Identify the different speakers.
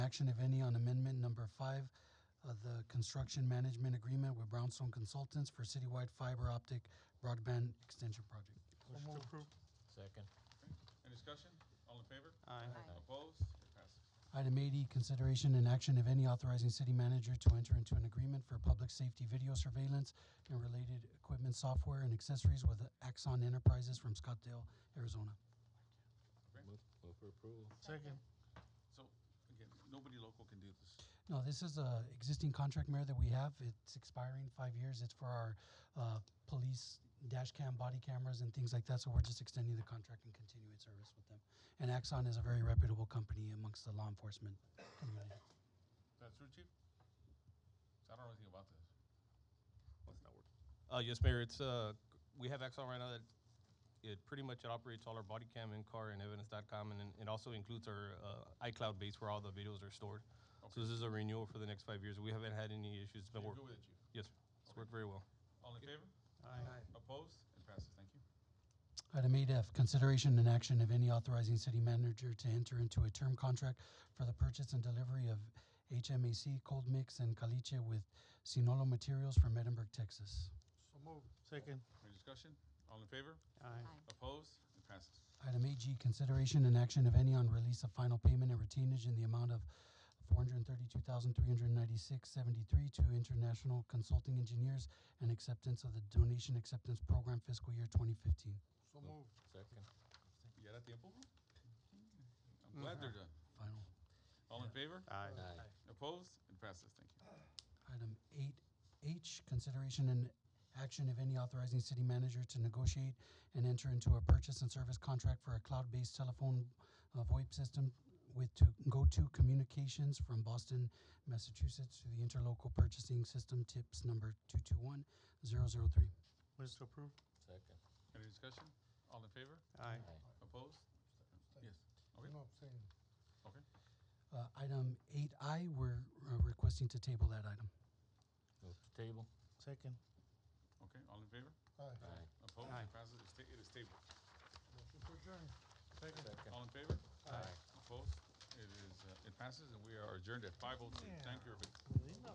Speaker 1: action, if any, on amendment number five of the construction management agreement with Brownstone Consultants for citywide fiber optic broadband extension project.
Speaker 2: Motion to approve.
Speaker 3: Second.
Speaker 2: Any discussion? All in favor?
Speaker 4: Aye.
Speaker 2: Opposed? It passes.
Speaker 1: Item eighty, consideration and action, if any, authorizing city manager to enter into an agreement for public safety video surveillance and related equipment, software, and accessories with Axon Enterprises from Scottsdale, Arizona.
Speaker 3: Move, move for approval.
Speaker 4: Second.
Speaker 2: So, again, nobody local can do this.
Speaker 1: No, this is a existing contract, Mayor, that we have. It's expiring five years. It's for our uh, police dash cam, body cameras, and things like that. So we're just extending the contract and continuing service with them. And Axon is a very reputable company amongst the law enforcement community.
Speaker 2: That's true, chief? I don't know anything about this.
Speaker 5: Uh, yes, Mayor, it's, uh, we have Axon right now that it pretty much operates all our body cam in car and evidence.com and then it also includes our, uh, iCloud base where all the videos are stored. So
Speaker 2: Okay.
Speaker 5: this is a renewal for the next five years. We haven't had any issues. It's been
Speaker 2: You're
Speaker 5: work,
Speaker 2: good with it, chief?
Speaker 5: yes, sir. It's worked very well.
Speaker 2: All in favor?
Speaker 4: Aye.
Speaker 2: Opposed? It passes. Thank you.
Speaker 1: Item eight F, consideration and action, of any, authorizing city manager to enter into a term contract for the purchase and delivery of HMAC cold mix and caliche with Sinolo Materials from Edinburg, Texas.
Speaker 4: So moved. Second.
Speaker 2: Any discussion? All in favor?
Speaker 4: Aye.
Speaker 2: Opposed? It passes.
Speaker 1: Item eight G, consideration and action, of any, on release of final payment and retainage in the amount of four hundred and thirty-two thousand, three hundred and ninety-six, seventy-three to International Consulting Engineers and acceptance of the donation acceptance program fiscal year twenty fifteen.
Speaker 4: So moved.
Speaker 3: Second.
Speaker 2: You got a tiempo, bro? I'm glad they're done.
Speaker 1: Final.
Speaker 2: All in favor?
Speaker 4: Aye.
Speaker 3: Aye.
Speaker 2: Opposed? It passes. Thank you.
Speaker 1: Item eight H, consideration and action, if any, authorizing city manager to negotiate and enter into a purchase and service contract for a cloud-based telephone uh, VoIP system with to go-to communications from Boston, Massachusetts to the interlocal purchasing system tips number two-two-one zero-zero-three.
Speaker 4: Motion to approve.
Speaker 3: Second.
Speaker 2: Any discussion? All in favor?
Speaker 4: Aye.
Speaker 2: Opposed? Yes. Okay.
Speaker 6: No, I'm saying,
Speaker 2: Okay.
Speaker 1: Uh, item eight I, we're uh, requesting to table that item.
Speaker 3: Move to table.
Speaker 4: Second.
Speaker 2: Okay. All in favor?
Speaker 6: aye.
Speaker 3: Aye.
Speaker 2: Opposed?
Speaker 4: Aye.
Speaker 2: It passes. It's ta- It is tabled.
Speaker 6: Motion to adjourn.
Speaker 3: Second.
Speaker 2: All in favor?
Speaker 3: Aye.
Speaker 2: Opposed? It is, uh, it passes, and we are adjourned at five oh two. Thank you, everybody.